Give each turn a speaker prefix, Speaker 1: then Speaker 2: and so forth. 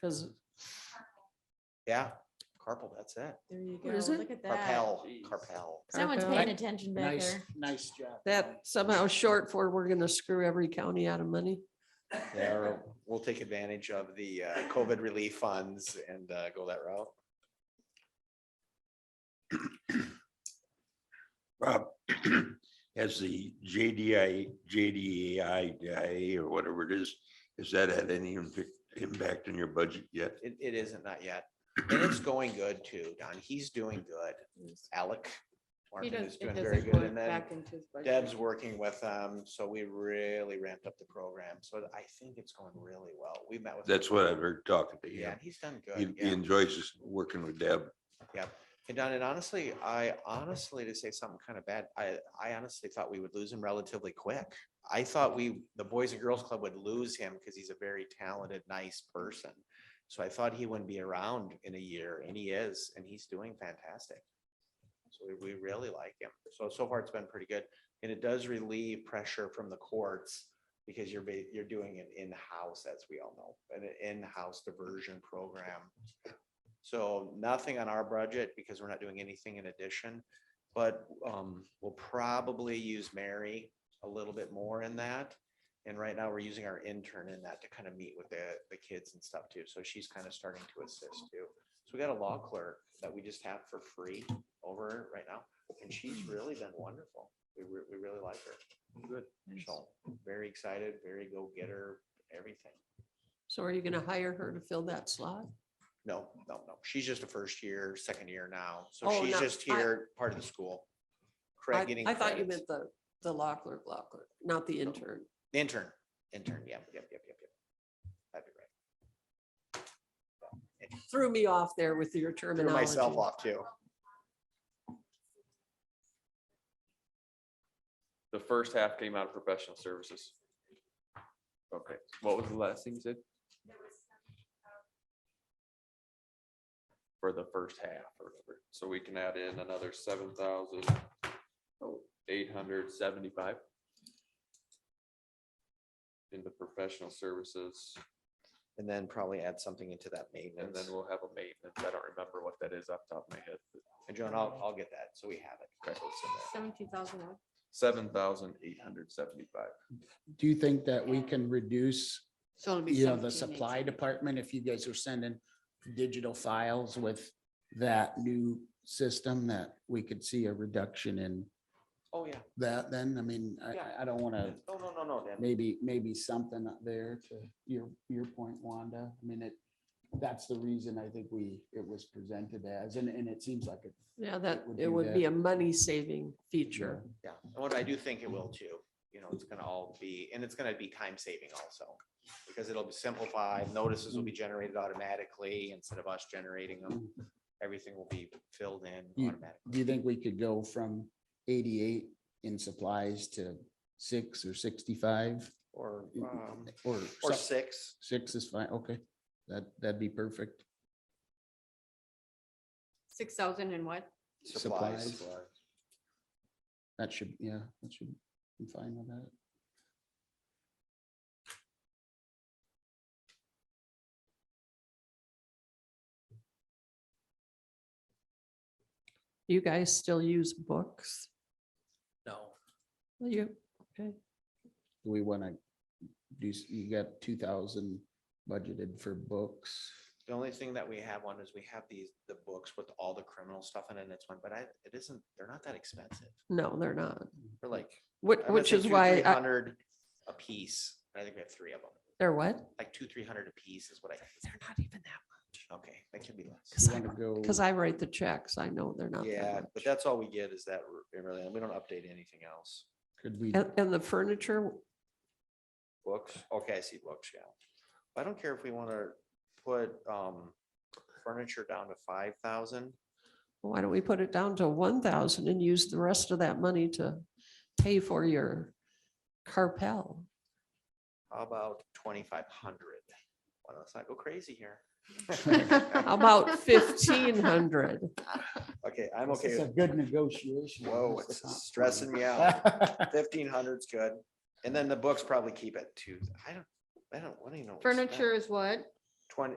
Speaker 1: Cause
Speaker 2: Yeah, carpal, that's it.
Speaker 3: There you go.
Speaker 4: What is it?
Speaker 3: Look at that.
Speaker 2: Carpal,
Speaker 1: Jeez.
Speaker 2: carpal.
Speaker 4: Someone's
Speaker 1: Carpel.
Speaker 4: paying attention back
Speaker 1: nice,
Speaker 4: there.
Speaker 1: nice job.
Speaker 4: That somehow short for we're gonna screw every county out of money.
Speaker 2: Yeah, or we'll take advantage of the uh, COVID relief funds and uh, go that route.
Speaker 5: Rob, has the JDI, JDI day or whatever it is, has that had any impi- impact on your budget yet?
Speaker 2: It, it isn't, not yet. And it's going good too, Don. He's doing good. Alec.
Speaker 3: He
Speaker 2: Martin
Speaker 3: does,
Speaker 2: is
Speaker 3: it
Speaker 2: doing very
Speaker 3: doesn't
Speaker 2: good. And
Speaker 3: work
Speaker 2: then
Speaker 3: back into his budget.
Speaker 2: Deb's working with them, so we really ramped up the program. So I think it's going really well. We met with. him.
Speaker 5: That's what I've heard talking to
Speaker 2: Yeah,
Speaker 5: him.
Speaker 2: and he's done
Speaker 5: He
Speaker 2: good.
Speaker 5: he
Speaker 2: Yeah.
Speaker 5: enjoys this- working with Deb.
Speaker 2: And Don, and honestly, I honestly, to say something kind of bad, I, I honestly thought we would lose him relatively quick. I thought we, the Boys and Girls Club would lose him because he's a very talented, nice person. So I thought he wouldn't be around in a year and he is, and he's doing fantastic. So we, we really like him. So, so far it's been pretty good. And it does relieve pressure from the courts because you're, ba- you're doing it in-house, as we all know, an in-house diversion program. So nothing on our budget because we're not doing anything in addition. But um, we'll probably use Mary a little bit more in that. And right now, we're using our intern in that to kind of meet with the, the kids and stuff too. So she's kind of starting to assist too. So we got a law clerk that we just have for free over right now, and she's really been wonderful. We, re- we really like her. Good. So very excited, very go-getter, everything.
Speaker 4: So are you gonna hire her to fill that slot?
Speaker 2: No, no, no. She's just a first year, second year now. So
Speaker 4: Oh,
Speaker 2: she's
Speaker 4: no,
Speaker 2: just
Speaker 4: I-
Speaker 2: here, part of the school.
Speaker 4: I
Speaker 2: Correct, getting.
Speaker 4: I thought you
Speaker 2: credits.
Speaker 4: meant the, the law clerk, law clerk, not the intern.
Speaker 2: Intern, intern, yep, yep, yep, yep, yep. That'd be right.
Speaker 4: Threw me off there with your
Speaker 2: Threw
Speaker 4: terminology.
Speaker 2: myself off too.
Speaker 6: The first half came out of professional services. Okay, what was the last thing you said? For the first half or whatever, so we can add in another seven thousand eight hundred seventy-five. In the professional services,
Speaker 2: And then probably add something into that
Speaker 6: and
Speaker 2: maintenance.
Speaker 6: then we'll have a maintenance, I don't remember what that is off the top of my head.
Speaker 2: And Joan, I'll, I'll get that. So we have it. So it's in there.
Speaker 3: Seventeen thousand.
Speaker 6: Seven thousand eight hundred seventy-five.
Speaker 7: do you think that we can reduce,
Speaker 3: So it'll be.
Speaker 7: you know, the supply department, if you guys are sending digital files with that new system, that we could see a reduction in
Speaker 2: Oh, yeah.
Speaker 7: that then? I mean, I-
Speaker 2: Yeah.
Speaker 7: I, I don't want to,
Speaker 2: No, no, no, no, Dan.
Speaker 7: maybe, maybe something up there to your, your point, Wanda. I mean, it, that's the reason I think we, it was presented as, and, and it seems like it's
Speaker 4: Yeah, that,
Speaker 7: would
Speaker 4: it
Speaker 7: do
Speaker 4: would
Speaker 7: that.
Speaker 4: be a money saving feature.
Speaker 2: Yeah. And what I do think it will too, you know, it's gonna all be, and it's gonna be time saving also. Because it'll be simplified, notices will be generated automatically instead of us generating them. Everything will be filled in
Speaker 4: Hmm.
Speaker 7: You-
Speaker 2: automatically.
Speaker 7: do you think we could go from eighty-eight in supplies to six or sixty-five?
Speaker 2: Or,
Speaker 4: Hmm.
Speaker 7: Mm,
Speaker 2: um,
Speaker 7: Or,
Speaker 2: or
Speaker 7: some-
Speaker 2: six,
Speaker 7: six is fine, okay, that, that'd be perfect.
Speaker 3: Six thousand and what?
Speaker 2: supplies.
Speaker 7: Supplies. That should, yeah, that should be fine with that.
Speaker 4: You guys still use books?
Speaker 1: No,
Speaker 4: Well, You, okay.
Speaker 7: Do we want to do, s- you got two thousand budgeted for books?
Speaker 2: The only thing that we have on is we have these, the books with all the criminal stuff in it, and it's one, but I, it isn't, they're not that expensive.
Speaker 4: No, they're not.
Speaker 2: They're like,
Speaker 4: Which,
Speaker 2: I'm gonna
Speaker 4: which
Speaker 2: say
Speaker 4: is
Speaker 2: two,
Speaker 4: why, I-
Speaker 2: 300 A piece, I think we have three of them,
Speaker 4: they're what?
Speaker 2: like two, three hundred a piece is what I,
Speaker 4: They're not even that,
Speaker 2: okay, that could be less.
Speaker 4: because
Speaker 7: You
Speaker 4: I,
Speaker 7: wanna go-
Speaker 4: because I write the checks. I know they're not
Speaker 2: Yeah,
Speaker 4: that
Speaker 2: but
Speaker 4: much.
Speaker 2: that's all we get is that, r- it really, we don't update anything else.
Speaker 7: Could we,
Speaker 4: And, and the furniture,
Speaker 2: Books, okay, I see books, yeah. I don't care if we wanna put, um, furniture down to five thousand.
Speaker 4: why don't we put it down to one thousand and use the rest of that money to pay for your carpel?
Speaker 2: How about twenty-five hundred? Well, let's not go crazy here.
Speaker 4: How About fifteen hundred.
Speaker 2: Okay, I'm
Speaker 7: this
Speaker 2: okay.
Speaker 7: is a
Speaker 2: with-
Speaker 7: good negotiation.
Speaker 2: Whoa,
Speaker 7: This is
Speaker 2: it's
Speaker 7: not
Speaker 2: stressing
Speaker 7: fun.
Speaker 2: me out. Fifteen hundred's good. And then the books probably keep it too. I don't, I don't, I don't even know. what we spent.
Speaker 3: Furniture is what?
Speaker 2: Twenty,